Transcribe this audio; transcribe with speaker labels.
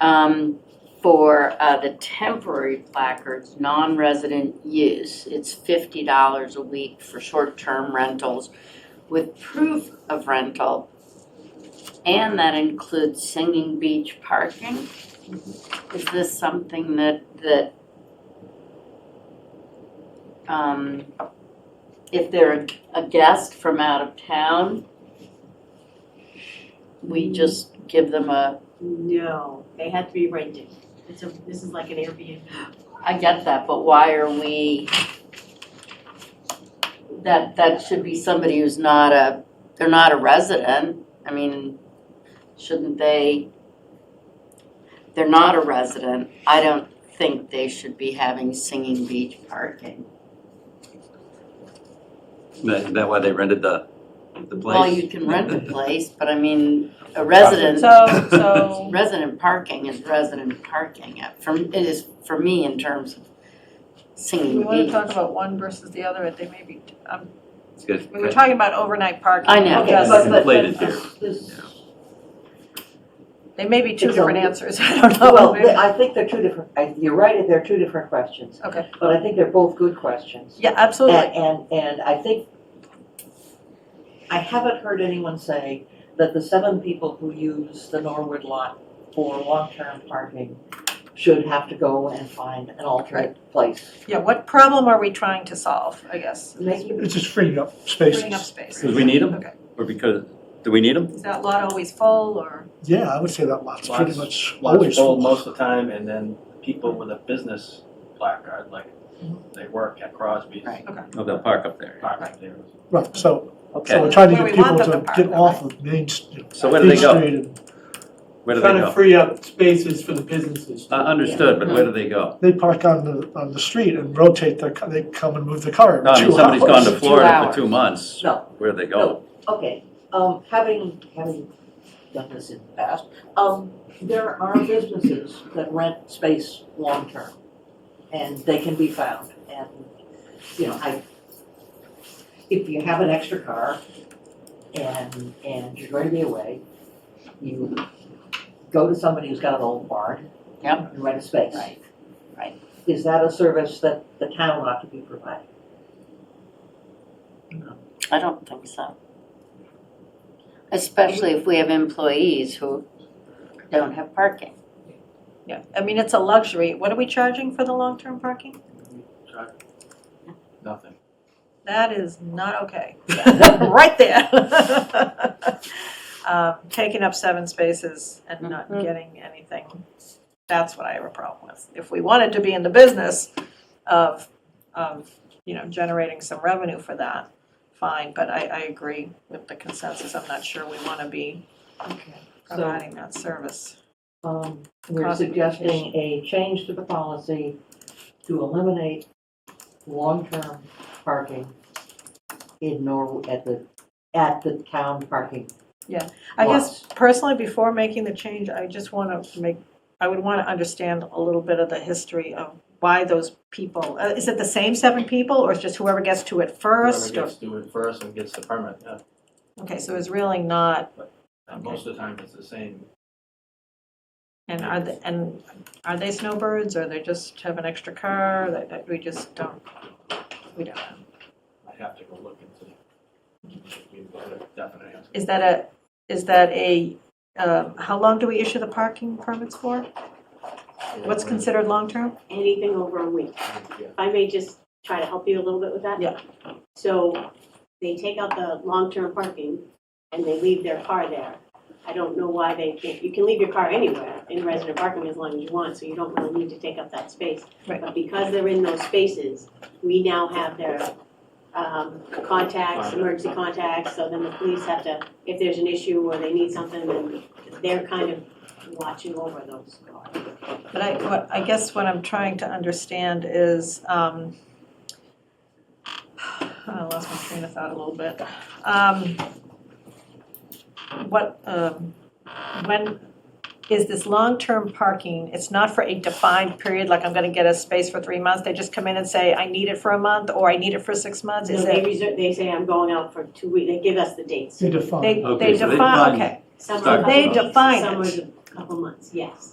Speaker 1: um, for uh, the temporary placards, non-resident use. It's fifty dollars a week for short-term rentals with proof of rental. And that includes Singing Beach parking. Is this something that, that um, if they're a guest from out of town, we just give them a
Speaker 2: No, they had to be rented. It's a, this is like an Airbnb.
Speaker 1: I get that, but why are we? That, that should be somebody who's not a, they're not a resident, I mean, shouldn't they? They're not a resident, I don't think they should be having Singing Beach parking.
Speaker 3: That, that why they rented the, the place?
Speaker 1: Well, you can rent a place, but I mean, a resident,
Speaker 4: So, so,
Speaker 1: resident parking is resident parking, Uh, from, it is, for me, in terms of
Speaker 4: we
Speaker 1: Singing
Speaker 4: wanna
Speaker 1: Beach.
Speaker 4: talk about one versus the other, they may be, um,
Speaker 3: It's good.
Speaker 4: we were talking about overnight parking.
Speaker 1: I know.
Speaker 2: Okay, but- but-
Speaker 3: Conflated
Speaker 2: but, uh,
Speaker 3: here.
Speaker 2: this-
Speaker 4: They may be two
Speaker 5: It's
Speaker 4: different
Speaker 5: all-
Speaker 4: answers, I don't know.
Speaker 5: Well,
Speaker 4: Maybe-
Speaker 5: th- I think they're two different, I- you're right, they're two different questions.
Speaker 4: Okay.
Speaker 5: But I think they're both good questions.
Speaker 4: Yeah,
Speaker 5: And,
Speaker 4: absolutely,
Speaker 5: and, and I think, I haven't heard anyone say that the seven people who use the Norwood lot for long-term parking should have to go and find an alternate place.
Speaker 4: yeah, what problem are we trying to solve, I guess?
Speaker 5: Making,
Speaker 6: It's just freeing up
Speaker 4: Freeing up
Speaker 6: spaces.
Speaker 4: space.
Speaker 3: Because we need them?
Speaker 4: Okay.
Speaker 3: Or because, do we need them?
Speaker 4: Is that lot always full, or,
Speaker 6: Yeah, I would say that lot's pretty
Speaker 7: Lots-
Speaker 6: much
Speaker 7: lots
Speaker 6: always
Speaker 7: full
Speaker 6: full.
Speaker 7: most of the time, and then people with a business placard, like they work at Crosby's,
Speaker 1: Right.
Speaker 3: Oh, they'll park up there.
Speaker 7: park up there.
Speaker 6: Right, so, so
Speaker 3: Okay,
Speaker 6: we're trying to
Speaker 4: Where
Speaker 6: get
Speaker 4: we want
Speaker 6: people
Speaker 4: them to
Speaker 6: to
Speaker 4: park,
Speaker 6: get
Speaker 4: though,
Speaker 6: off of Main Street.
Speaker 3: So where do they go?
Speaker 6: go?
Speaker 3: where do they
Speaker 8: Trying to
Speaker 3: go?
Speaker 8: free up spaces for the businesses.
Speaker 3: Uh, understood, but where do they go?
Speaker 6: They park on the, on the street and rotate their, ca- they come and move the car
Speaker 3: No, I mean,
Speaker 6: two
Speaker 3: Uh, somebody's gone
Speaker 6: hours.
Speaker 3: to Florida for two months,
Speaker 5: no,
Speaker 3: where do they go?
Speaker 5: Okay, um, having, having done this in the past, um, there are businesses that rent space long-term. And they can be found, and, you know, I, if you have an extra car and, and you're going to be away, you go to somebody who's got an old barn.
Speaker 1: Yep.
Speaker 5: And rent a space.
Speaker 1: Right, right.
Speaker 5: Is that a service that the town ought to be providing?
Speaker 1: I don't think so. Especially if we have employees who don't have parking.
Speaker 4: yeah, I mean, it's a luxury, what are we charging for the long-term parking?
Speaker 7: Nothing.
Speaker 4: That is not okay, Yeah, right there. Um, taking up seven spaces and not
Speaker 1: Mhm.
Speaker 4: getting anything, that's what I have a problem with. If we wanted to be in the business of, of, you know, generating some revenue for that, fine, but I, I agree with the consensus, I'm not sure we wanna be
Speaker 5: Okay. So,
Speaker 4: providing that service.
Speaker 5: Um, we're
Speaker 4: Cost
Speaker 5: suggesting a change to the policy to eliminate long-term parking in Norwood, at the, at the town parking.
Speaker 4: I guess
Speaker 5: lots.
Speaker 4: personally, before making the change, I just want to make, I would want to understand a little bit of the history of why those people, uh, is it the same seven people or it's just whoever gets to it first?
Speaker 7: Whoever
Speaker 4: or-
Speaker 7: gets to it first and gets the permit, yeah.
Speaker 4: Okay, so it's really not,
Speaker 7: And most of the time, it's the same.
Speaker 4: and are they, and are they snowbirds or they just have an extra car that, that we just don't, we don't know.
Speaker 7: I have to go look into it. We've got a definite answer.
Speaker 4: Is that a, is that a, um, how long do we issue the parking permits for? What's considered long-term?
Speaker 2: Anything over a week.
Speaker 7: Yeah.
Speaker 2: If I may just try to help you a little bit with that?
Speaker 4: Yeah.
Speaker 2: So they take out the long-term parking and they leave their car there. I don't know why they can't, you can leave your car anywhere in resident parking as long as you want, so you don't really need to take up that space.
Speaker 4: Right.
Speaker 2: But because they're in those spaces, we now have their um, contacts,
Speaker 7: Contact.
Speaker 2: emergency contacts, so then the police have to, if there's an issue or they need something, then they're kind of watching over those cars.
Speaker 4: But I, what, I guess what I'm trying to understand is, um, I lost my train of thought a little bit. Um, what, um, when, is this long-term parking, it's not for a defined period, like I'm gonna get a space for three months, they just come in and say, I need it for a month, or I need it for six months,
Speaker 2: No,
Speaker 4: is
Speaker 2: they
Speaker 4: it?
Speaker 2: reserve, they say, I'm going out for two weeks, they give us the dates.
Speaker 6: They define.
Speaker 4: They,
Speaker 3: Okay,
Speaker 4: they
Speaker 3: so they
Speaker 4: define,
Speaker 3: define-
Speaker 4: okay,
Speaker 2: Some
Speaker 3: Sorry.
Speaker 2: are a couple
Speaker 4: They
Speaker 2: weeks,
Speaker 4: define
Speaker 2: some
Speaker 4: it.
Speaker 2: are a couple months, yes.